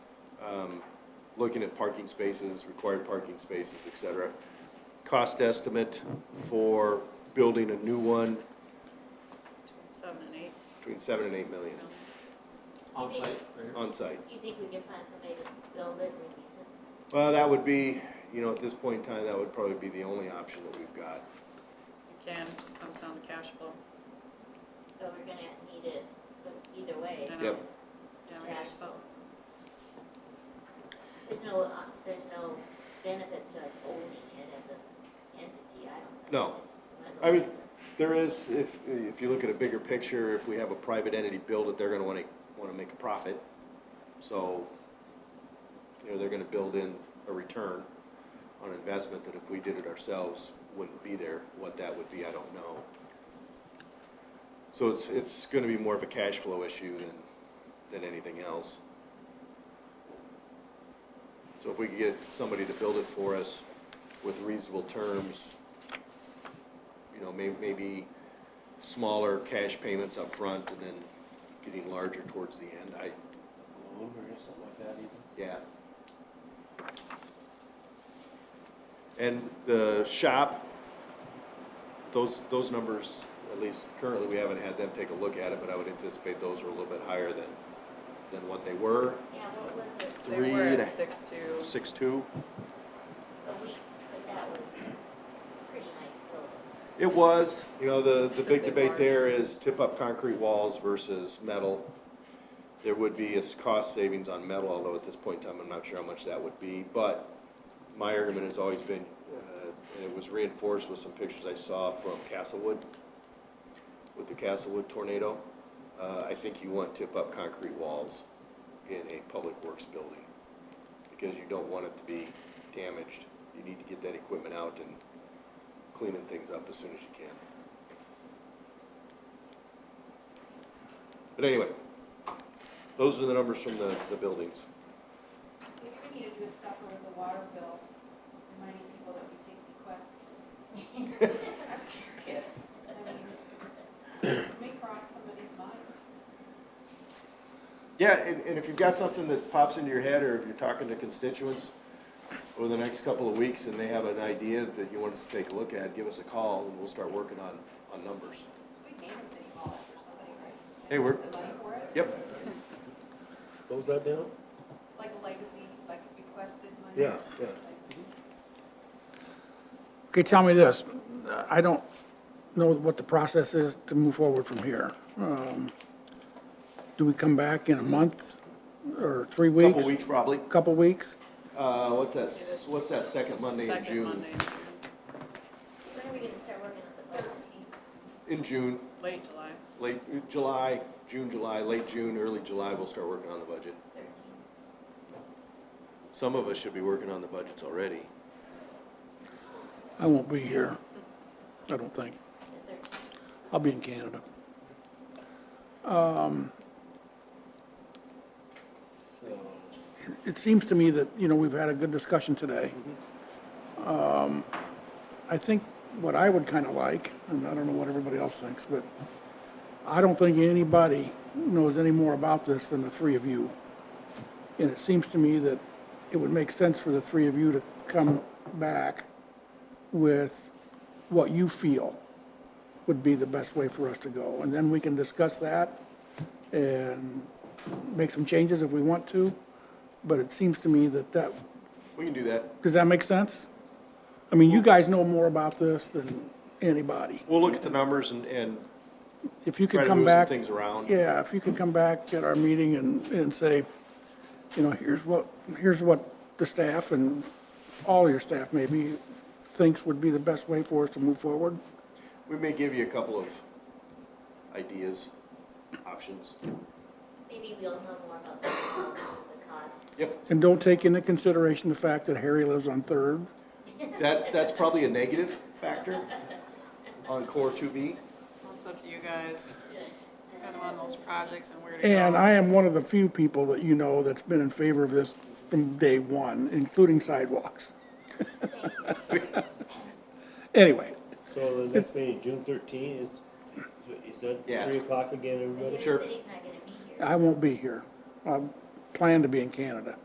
um, looking at parking spaces, required parking spaces, et cetera. Cost estimate for building a new one between seven and eight. between seven and eight million you know. On site, right here. on site. You think we can find somebody to build it and lease it? Well, that would be, you know, at this point in time, that would probably be the only option that we've got. You can, it just comes down to cash flow. So we're gonna need it but either way. I know. Yep. uh, Yeah, we Cash just sell. There's no, uh, there's no benefit to us owning it as an entity, I don't think. No. Might as I well mean, lease it. There is, if, if you look at a bigger picture, if we have a private entity build it, they're gonna wanna, wanna make a profit. So, you know, they're gonna build in a return on investment that if we did it ourselves, wouldn't be there. What that would be, I don't know. So it's, it's gonna be more of a cash flow issue than, than anything else. So if we could get somebody to build it for us with reasonable terms, you know, may, maybe smaller cash payments up front and then getting larger towards the end, I, loan or something like that even? yeah. And the shop, those, those numbers, at least currently, we haven't had them take a look at it, but I would anticipate those are a little bit higher than, than what they were, Yeah, what was it, They Three were and a- at six two. six-two. a week, but that was pretty nice building. It was. You know, the, the big Big debate barn. there is tip-up concrete walls versus metal. There would be a s- cost savings on metal, although at this point in time, I'm not sure how much that would be. But my argument has always been, uh, and it was reinforced with some pictures I saw from Castlewood, with the Castlewood tornado. Uh, I think you want tip-up concrete walls in a public works building because you don't want it to be damaged. You need to get that equipment out and cleaning things up as soon as you can. But anyway, those are the numbers from the, the buildings. Maybe we need to do a stuffer with the water bill, reminding people that we take requests. I'm serious. I mean, it may cross somebody's mind. Yeah, and, and if you've got something that pops into your head, or if you're talking to constituents over the next couple of weeks and they have an idea that you want us to take a look at, give us a call and we'll start working on, on numbers. We gave a city hall after somebody, right? Hey, we're- The money for it? Yep. What was that down? Like a legacy, like requested money? Yeah, yeah. Like, Okay, tell me this. I don't know what the process is to move forward from here. Um, Do we come back in a month or three weeks? Couple weeks probably. Couple weeks? Uh, what's that, what's that second Monday in Second June? Monday in June, When are we gonna start working on the budget? In June, late July. late July, June, July, late June, early July, we'll start working on the budget. Thirteen. Some of us should be working on the budgets already. I won't be here, I don't think. the thirteen. I'll be in Canada. Um, So, It seems to me that, you know, we've had a good discussion today. Um, I think what I would kind of like, and I don't know what everybody else thinks, but I don't think anybody knows any more about this than the three of you. And it seems to me that it would make sense for the three of you to come back with what you feel would be the best way for us to go. And then we can discuss that and make some changes if we want to. But it seems to me that that, We can do that. does that make sense? I mean, you guys know more about this than anybody. We'll look at the numbers and, and If you Try could to come move some back. things around. Yeah, if you could come back at our meeting and, and say, you know, here's what, here's what the staff and all your staff maybe thinks would be the best way for us to move forward. we may give you a couple of ideas, options. Maybe we'll know more about the the cost. Yep, And don't take into consideration the fact that Harry lives on Third. that, that's probably a negative factor on core two B. Well, It's up to you guys. Kind of on those projects and where to go. And I am one of the few people that you know that's been in favor of this from day one, including sidewalks. Anyway, so the next meeting, June thirteen is, is that Yeah. three o'clock again, everybody? Sure. The city's not gonna be here. I won't be here. I plan to be in Canada.